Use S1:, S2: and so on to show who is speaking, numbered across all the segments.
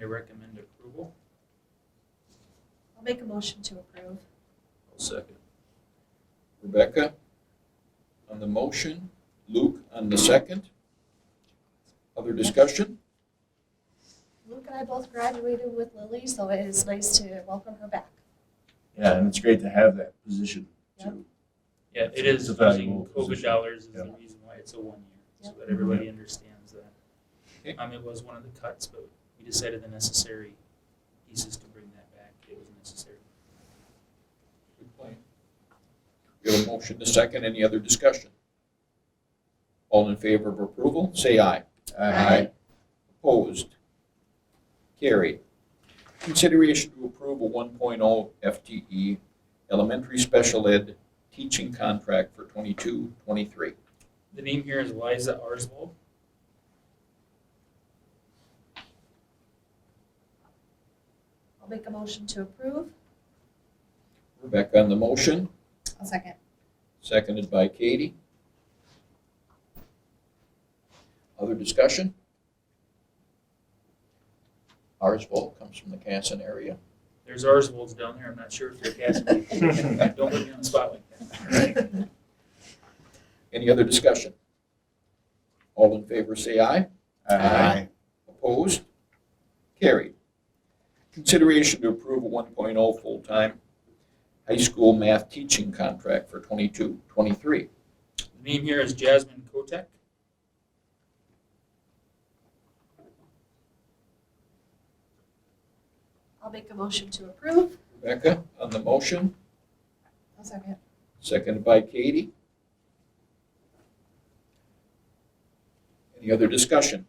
S1: I recommend approval.
S2: I'll make a motion to approve.
S3: I'll second. Rebecca on the motion, Luke on the second. Other discussion?
S2: Luke and I both graduated with Lily, so it is nice to welcome her back.
S4: Yeah, and it's great to have that position too.
S1: Yeah, it
S4: It's
S1: is
S4: a
S1: using
S4: valuable
S1: COVID
S4: position.
S1: dollars is
S4: Yeah.
S1: the reason why it's a one year, so
S2: Yep.
S1: that everybody understands
S3: Okay.
S1: that. Um, it was one of the cuts, but we decided the necessary pieces to bring that back, it was necessary.
S3: Good plan. We have a motion to second. Any other discussion? All in favor of approval, say aye.
S2: Aye.
S3: Opposed? Carried. Consideration to approve a 1.0 FTE E elementary special ed teaching contract for 22, 23.
S1: The name here is Liza Arswold.
S2: I'll make a motion to approve.
S3: Rebecca on the motion,
S2: I'll second.
S3: seconded by Katie. Other discussion? Ours vote comes from the Casson area.
S1: There's Arswolds down there, I'm not sure if they're Cassie. Don't put me on the spot like that.
S3: Any other discussion? All in favor, say aye. Aye. Opposed? Carried. Consideration to approve a 1.0 full-time high school math teaching contract for 22, 23.
S1: The name here is Jasmine Kotek.
S2: I'll make a motion to approve.
S3: Rebecca on the motion,
S2: I'll second.
S3: seconded by Katie. Any other discussion?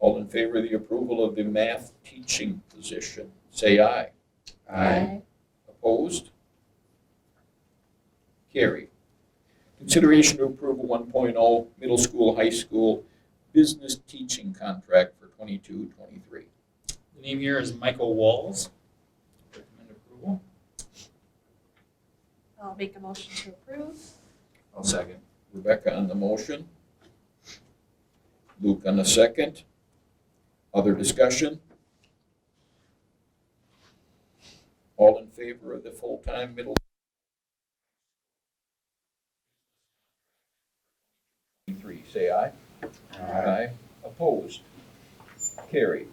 S3: All in favor of the approval of the math teaching position, say aye. Opposed? Carried. Consideration to approve a 1.0 middle school, high school business teaching contract for 22, 23.
S1: The name here is Michael Walls. Recommend approval.
S2: I'll make a motion to approve.
S4: I'll second.
S3: Rebecca on the motion. Luke on the second. Other discussion? All in favor of the full-time middle? Three, say aye. Aye. Opposed? Carried.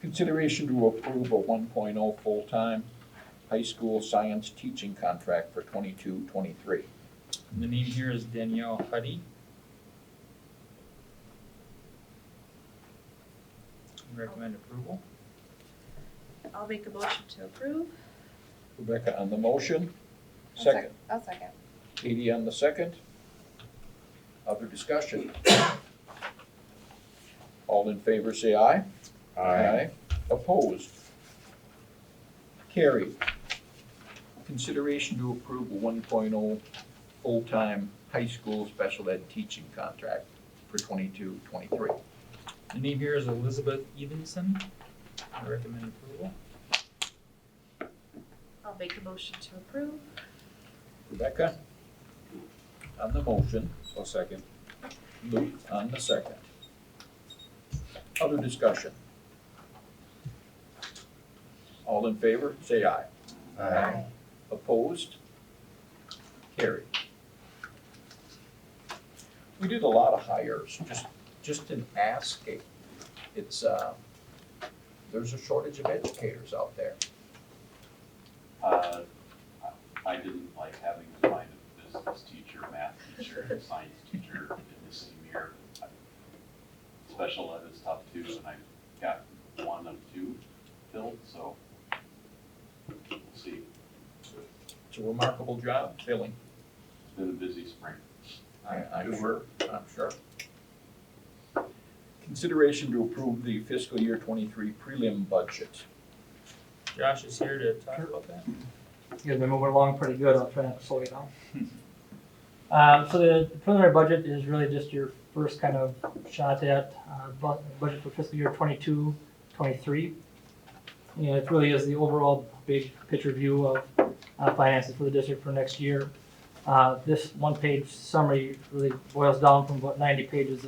S3: Consideration to approve a 1.0 full-time high school science teaching contract for 22-23.
S1: The name here is Danielle Huddy. Recommend approval.
S2: I'll make a motion to approve.
S3: Rebecca on the motion, second.
S2: I'll second.
S3: Katie on the second. Other discussion? All in favor, say aye. Opposed? Carried. Consideration to approve a 1.0 full-time high school special ed teaching contract for 22-23.
S1: The name here is Elizabeth Evenson. I recommend approval.
S2: I'll make a motion to approve.
S3: Rebecca? On the motion.
S4: I'll second.
S3: Luke on the second. Other discussion? All in favor, say aye. Opposed? Carried. We did a lot of hires, just, just in asking. It's, uh, there's a shortage of educators out there.
S5: Uh, I didn't like having to find a business teacher, math teacher, and science teacher in the same year. Special ed is tough too, and I got one of two filled, so we'll see.
S3: It's a remarkable job filling.
S5: It's been a busy spring.
S3: I, I'm sure, I'm sure. Consideration to approve the fiscal year twenty-three prelim budget.
S1: Josh is here to talk about that.
S6: you guys been moving along pretty good. I'll try not to slow you down. Um, so the preliminary budget is really just your first kind of shot at, uh, bu- budget for fiscal year 22, 23. And it really is the overall big picture view of, uh, finances for the district for next year. Uh, this one-page summary really boils down from about 90 pages